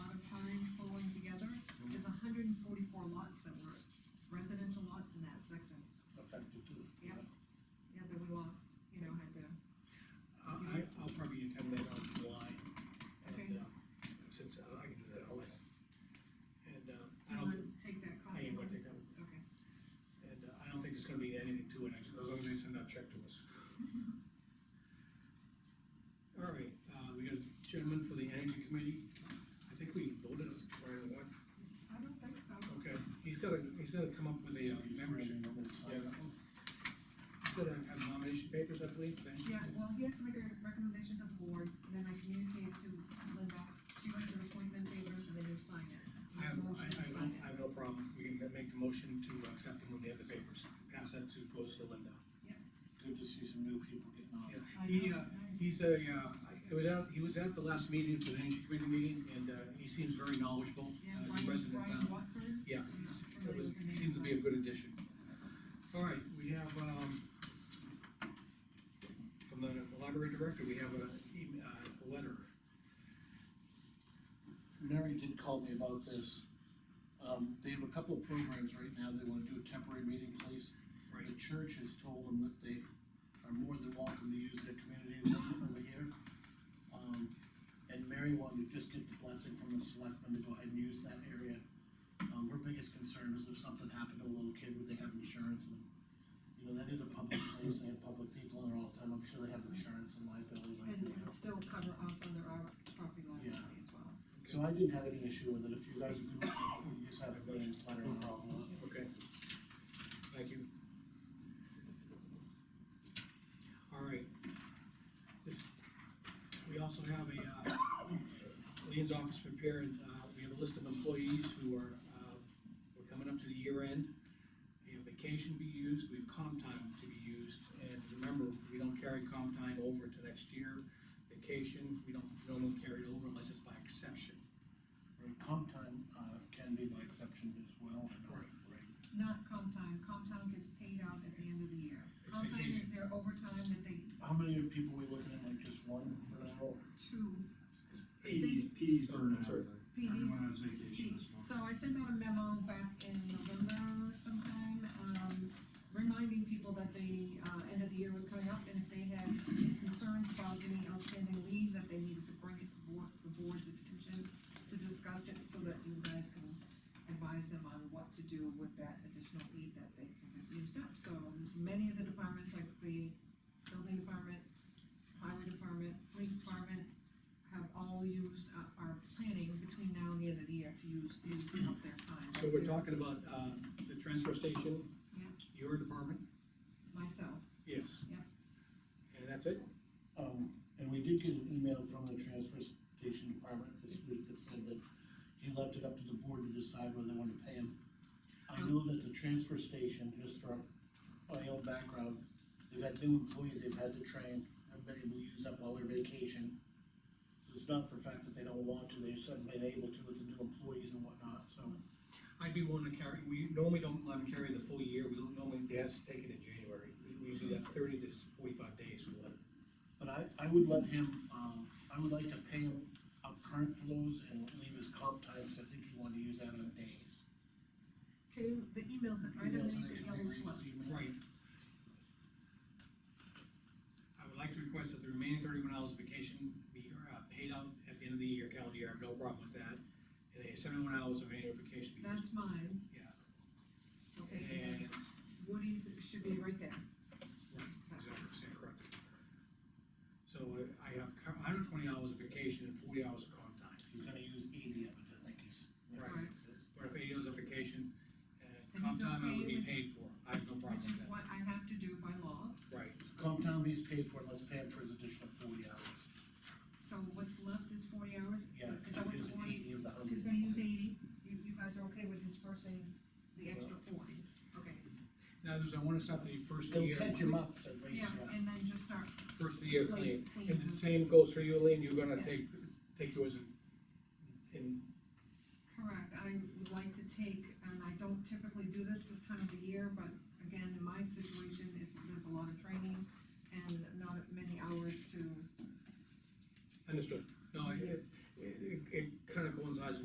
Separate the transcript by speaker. Speaker 1: uh, uh, uh, uh, he's gonna come up with a uh, membership. He's gonna have nomination papers, I believe, then.
Speaker 2: Yeah, well, he has to make a recommendation to the board, and then I communicate to Linda, she writes an appointment papers, and then you sign it.
Speaker 1: I have, I,
Speaker 2: Motion,
Speaker 1: I have
Speaker 2: sign
Speaker 1: no- I
Speaker 2: it.
Speaker 1: have no problem, we can make the motion to accept them when they have the papers, pass that to, goes to Linda.
Speaker 3: Good to see some new people getting on.
Speaker 1: Yeah.
Speaker 2: I
Speaker 1: He,
Speaker 2: know,
Speaker 1: uh,
Speaker 2: I-
Speaker 1: he's a, uh, I was out, he was at the last meeting, for the energy committee meeting, and, uh, he seems very knowledgeable,
Speaker 2: Yeah,
Speaker 1: uh,
Speaker 2: Brian-
Speaker 1: resident of
Speaker 2: Brian
Speaker 1: town.
Speaker 2: Watford.
Speaker 1: Yeah,
Speaker 2: I'm not
Speaker 1: It
Speaker 2: familiar with
Speaker 1: was,
Speaker 2: her name,
Speaker 1: seemed to be a
Speaker 2: but-
Speaker 1: good addition. All right, we have, um, from the library director, we have a, em- uh, a letter.
Speaker 3: Mary did call me about this. Um, they have a couple of programs right now, they wanna do a temporary meeting place. The church has told them that they are more than welcome to use their community room over here. Um, and Mary wanted to just get the blessing from the selectmen to go ahead and use that area. Um, her biggest concern is if something happened to a little kid, would they have insurance? And, You know, that is a public place, they have public people in there all the time, I'm sure they have insurance and liability like
Speaker 2: And
Speaker 3: we have.
Speaker 2: it'd still cover us under our property liability
Speaker 3: Yeah.
Speaker 2: as well.
Speaker 3: So I didn't have any issue with it, if you guys are good with it, we just have a budget letter.
Speaker 1: No problem. Okay. Thank you. All right. This, we also have a, uh, Lean's office prepared, uh, we have a list of employees who are, uh, we're coming up to the year end. We have vacation to be used, we have comp time to be used, and remember, we don't carry comp time over to next year. Vacation, we don't normally carry it over unless it's by exception.
Speaker 3: Right, Comp time, uh, can be by exception as well, I know, right?
Speaker 2: Not comp time, comp time gets paid out at the end of the year.
Speaker 1: It's
Speaker 2: Comp time
Speaker 1: vacation.
Speaker 2: is their overtime that they
Speaker 3: How many people we looking at, like just one for now?
Speaker 2: chew
Speaker 4: PD's, PD's burning out.
Speaker 2: PDs.
Speaker 4: Everyone has vacation this month.
Speaker 2: So I sent out a memo back in November sometime, um, reminding people that the, uh, end of the year was coming up, and if they had concerns about any outstanding leave, that they needed to bring it to board, the board's attention to discuss it, so that you guys can advise them on what to do with that additional leave that they used up. So many of the departments, like the building department, highway department, police department, have all used, uh, are planning between now and the end of the year to use, use up their time.
Speaker 1: So we're talking about, uh, the transfer station,
Speaker 2: Yeah,
Speaker 1: Your department?
Speaker 2: myself,
Speaker 1: Yes.
Speaker 2: Yeah.
Speaker 1: And that's it?
Speaker 3: Um, and we did get an email from the transfer station department this week that said that he left it up to the board to decide whether they want to pay him. I know that the transfer station, just from my own background, they've had new employees, they've had to train, everybody will use up all their vacation. So it's not for the fact that they don't want to, they've suddenly been able to with the new employees and whatnot, so.
Speaker 1: I'd be willing to carry, we normally don't let them carry the full year, we don't normally, they have to take it in January. We usually have thirty to forty-five days we let it.
Speaker 3: But I, I would let him, um, I would like to pay him up current for those and leave his comp time, 'cause I think he wanted to use that on days.
Speaker 2: okay, the emails that are
Speaker 3: Emails and
Speaker 2: underneath the
Speaker 3: everything,
Speaker 2: yellow
Speaker 3: read
Speaker 2: slip.
Speaker 3: this email.
Speaker 1: Right. I would like to request that the remaining thirty-one hours of vacation be uh, paid out at the end of the year, calendar year, I have no problem with that. And a seventy-one hours of annual vacation be used.
Speaker 2: That's mine,
Speaker 1: Yeah.
Speaker 2: okay, and then
Speaker 1: And,
Speaker 2: Woody's should be right there.
Speaker 1: exactly, stand corrected. So uh, I have hundred twenty hours of vacation and forty hours of comp time.
Speaker 3: He's gonna use eighty of it, I think he's.
Speaker 1: Right. Or if he goes on vacation, and
Speaker 2: And
Speaker 1: comp
Speaker 2: he's
Speaker 1: time I would
Speaker 2: okay
Speaker 1: be
Speaker 2: with-
Speaker 1: paid for, I have no problem
Speaker 2: Which is
Speaker 1: with
Speaker 2: what I have to do by law,
Speaker 1: that. Right,
Speaker 3: Comp time he's paid for, let's pay him for his additional forty hours.
Speaker 2: so what's left is forty hours.
Speaker 3: Yeah,
Speaker 2: Cause I went
Speaker 3: he's
Speaker 2: to forty,
Speaker 3: eighty of the
Speaker 2: so
Speaker 3: hundred.
Speaker 2: he's gonna use E. eighty, you, you guys are okay with dispersing the extra forty, okay.
Speaker 1: now, there's, I wanna start the first of the
Speaker 3: They'll
Speaker 1: year,
Speaker 3: catch him up, that race,
Speaker 2: Yeah,
Speaker 3: yeah.
Speaker 2: and then just start
Speaker 1: first of the year
Speaker 2: slate
Speaker 1: clean.
Speaker 2: clean.
Speaker 1: And the same goes for you, Lean, you're gonna
Speaker 2: Yeah.
Speaker 1: take, take yours in, in,
Speaker 2: Correct, I would like to take, and I don't typically do this this time of the year, but again, in my situation, it's, there's a lot of training and not many hours to
Speaker 1: understood. No, it, it, it kinda coincides